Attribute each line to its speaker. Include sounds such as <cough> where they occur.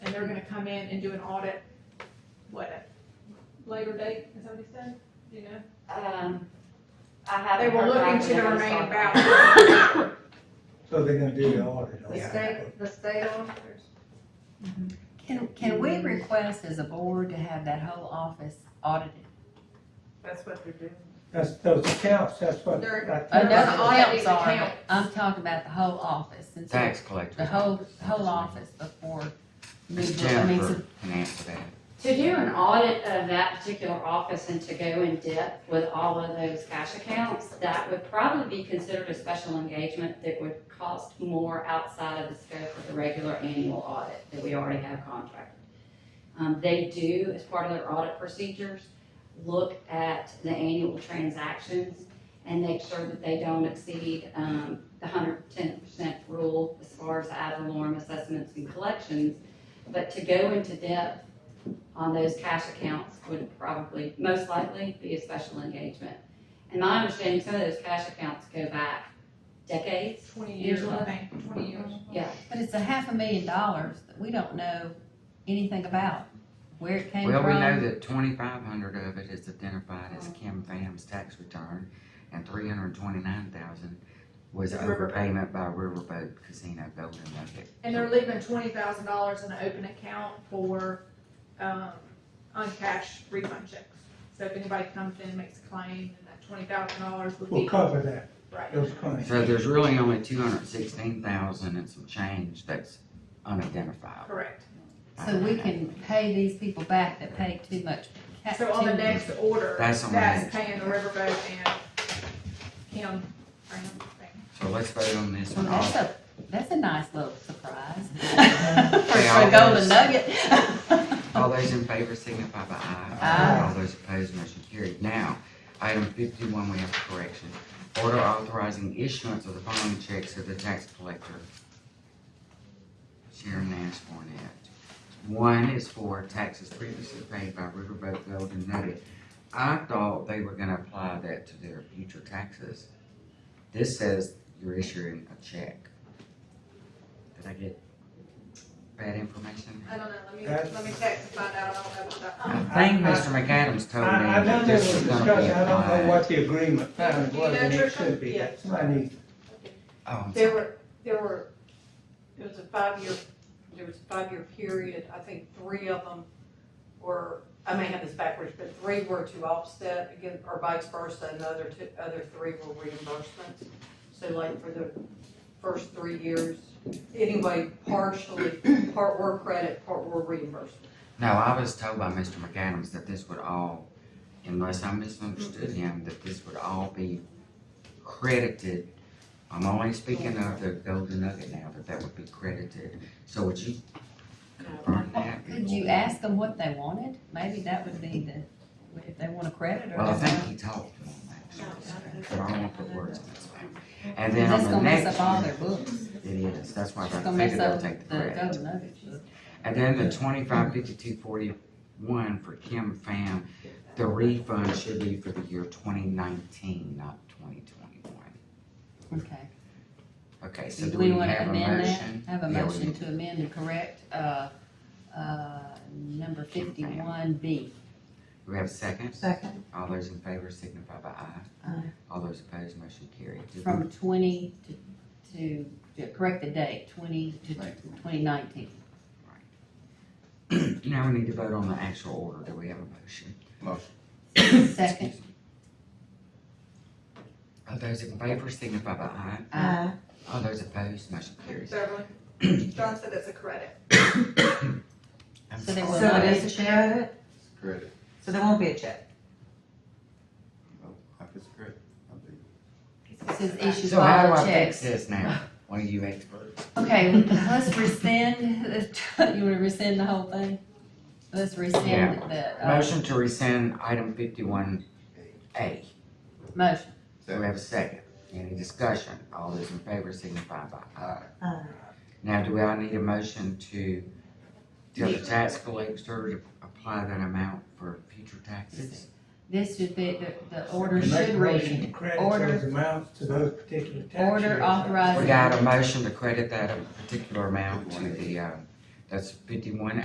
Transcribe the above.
Speaker 1: were gonna come in and do an audit, what, later date, is that what he said? Do you know?
Speaker 2: Um, I
Speaker 1: They
Speaker 2: haven't
Speaker 1: were
Speaker 2: heard back
Speaker 1: looking to the
Speaker 2: from them.
Speaker 1: remaining balance.
Speaker 3: So they're gonna do the audit on
Speaker 4: The
Speaker 3: that.
Speaker 4: state, the state auditors.
Speaker 5: Can, can we request as a board to have that whole office audited?
Speaker 4: That's what they're doing.
Speaker 3: That's, those accounts, that's what.
Speaker 4: They're-
Speaker 3: that-
Speaker 5: Oh, no, the
Speaker 4: They're auditing
Speaker 5: accounts
Speaker 4: the
Speaker 5: are,
Speaker 4: accounts.
Speaker 5: but I'm talking about the whole office, and so,
Speaker 6: Tax collector.
Speaker 5: the whole, whole office before.
Speaker 6: Miss
Speaker 5: we- I mean, so-
Speaker 6: Jennifer can answer that.
Speaker 2: To do an audit of that particular office and to go in depth with all of those cash accounts, that would probably be considered a special engagement that would cost more outside of the scope of the regular annual audit that we already have contracted. Um, they do, as part of their audit procedures, look at the annual transactions and make sure that they don't exceed, um, the hundred ten percent rule as far as ad valorem assessments and collections. But to go into depth on those cash accounts would probably, most likely, be a special engagement. And my understanding, some of those cash accounts go back decades.
Speaker 1: Twenty years, I think, twenty years.
Speaker 5: But it's a half a million dollars that we don't know anything about, where it came
Speaker 6: Well, we know
Speaker 5: from.
Speaker 6: that twenty-five hundred of it is identified as Kim Pham's tax return, and three hundred and twenty-nine thousand was
Speaker 1: Is Riverboat.
Speaker 6: overpayment by Riverboat Casino Golden Nugget.
Speaker 1: And they're leaving twenty thousand dollars in an open account for, um, uncashed refund checks. So if anybody comes in and makes a claim, then that twenty thousand dollars would
Speaker 3: We'll
Speaker 1: be,
Speaker 3: cover that,
Speaker 1: right.
Speaker 3: those claims.
Speaker 6: So there's really only two hundred and sixteen thousand and some change that's unidentified.
Speaker 1: Correct.
Speaker 5: So we can pay these people back that paid too much. ca-
Speaker 1: So on the
Speaker 5: too-
Speaker 1: next order,
Speaker 6: That's
Speaker 1: that's
Speaker 6: on the next.
Speaker 1: paying the riverboat and Kim, Brown thing.
Speaker 6: So let's vote on this
Speaker 5: Well,
Speaker 6: one.
Speaker 5: that's
Speaker 6: All-
Speaker 5: a, that's a nice little
Speaker 6: <laughs>
Speaker 5: surprise. <laughs> For a
Speaker 6: all
Speaker 5: golden
Speaker 6: those-
Speaker 5: nugget. <laughs>
Speaker 6: All those in favor signify by aye.
Speaker 5: Aye.
Speaker 6: All those opposed, motion carried. Now, item fifty-one, we have a correction. Order authorizing issuance of the following checks to the tax collector. Sharon Nash Barnett. One is for taxes previously paid by Riverboat Gold and Nugget. I thought they were gonna apply that to their future taxes. This says you're issuing a check. Did I get bad information?
Speaker 4: I don't know, let me, let me check to find out, I don't know about that.
Speaker 6: I think Mr. McAdams
Speaker 3: I,
Speaker 6: told me
Speaker 3: I know
Speaker 6: that
Speaker 3: there
Speaker 6: this
Speaker 3: was
Speaker 6: was gonna be
Speaker 3: discussion, I don't know
Speaker 6: applied.
Speaker 3: what the agreement found
Speaker 1: Do you know,
Speaker 3: was, and it
Speaker 1: Tricia?
Speaker 3: should be,
Speaker 1: Yeah.
Speaker 3: somebody needs
Speaker 6: Oh, I'm
Speaker 4: There
Speaker 6: sorry.
Speaker 4: were, there were, it was a five-year, there was a five-year period, I think three of them were, I may have this backwards, but three were to offset again, or vice versa, and the other two, other three were reimbursements. So like for the first three years, anyway, partially, part were credit, part were reimbursement.
Speaker 6: No, I was told by Mr. McAdams that this would all, unless I misunderstood him, that this would all be credited. I'm only speaking of the Golden Nugget now, that that would be credited. So would you confirm that?
Speaker 5: Could you ask them what they wanted? Maybe that would be the, if they want a credit or.
Speaker 6: Well, I
Speaker 5: something.
Speaker 6: think he talked to him,
Speaker 5: Oh,
Speaker 6: actually, but I don't want to put words in his mouth. And then
Speaker 5: That's
Speaker 6: on the
Speaker 5: gonna mess
Speaker 6: next
Speaker 5: up all their
Speaker 6: one,
Speaker 5: books.
Speaker 6: it is, that's why I
Speaker 5: It's gonna
Speaker 6: figured
Speaker 5: mess
Speaker 6: they'll
Speaker 5: up the
Speaker 6: take the credit.
Speaker 5: golden nuggets book.
Speaker 6: And then the twenty-five fifty-two forty-one for Kim Pham, the refund should be for the year twenty nineteen, not twenty twenty-one.
Speaker 5: Okay.
Speaker 6: Okay, so
Speaker 5: Do
Speaker 6: do
Speaker 5: we
Speaker 6: we
Speaker 5: wanna
Speaker 6: have a
Speaker 5: amend that?
Speaker 6: motion?
Speaker 5: Have a
Speaker 6: Yeah, we
Speaker 5: motion
Speaker 6: need-
Speaker 5: to amend and correct, uh, uh, number fifty-one B.
Speaker 6: We have a second?
Speaker 5: Second.
Speaker 6: All those in favor signify by aye.
Speaker 5: Aye.
Speaker 6: All those opposed, motion carried. Did we-
Speaker 5: From twenty to, to, to correct the date, twenty to twenty nineteen. <coughs>
Speaker 6: Now we <clears throat> need to vote on the actual order. Do we have a motion?
Speaker 5: Second.
Speaker 6: All those in favor signify by aye.
Speaker 5: Aye.
Speaker 6: All those opposed, motion carries.
Speaker 4: Beverly? John said it's a credit.
Speaker 6: I'm
Speaker 5: So there
Speaker 6: sorry.
Speaker 5: will
Speaker 7: So
Speaker 5: not
Speaker 7: it
Speaker 5: be
Speaker 7: is
Speaker 5: a
Speaker 7: a
Speaker 5: check.
Speaker 7: credit,
Speaker 8: Credit.
Speaker 7: so there won't be a check.
Speaker 8: If it's credit, I'll be.
Speaker 5: It says issue
Speaker 6: So how do
Speaker 5: all
Speaker 6: I
Speaker 5: checks.
Speaker 6: fix this now? One of you experts?
Speaker 5: Okay, let's rescind, you wanna rescind the <laughs> whole thing? Let's rescind the, uh,
Speaker 6: Motion to rescind item fifty-one A.
Speaker 5: motion.
Speaker 6: Do we have a second? Any discussion? All those in favor signify by aye.
Speaker 7: Uh,
Speaker 6: Now, do I need a motion to tell the tax collector to apply that amount for future taxes?
Speaker 5: This should be, the, the
Speaker 3: to
Speaker 5: order
Speaker 3: make a
Speaker 5: should
Speaker 3: motion to
Speaker 5: read,
Speaker 3: credit
Speaker 5: order-
Speaker 3: those amounts to those particular tax
Speaker 5: Order
Speaker 3: years.
Speaker 5: authorizing-
Speaker 6: We got a motion to credit that particular amount to the, uh, that's fifty-one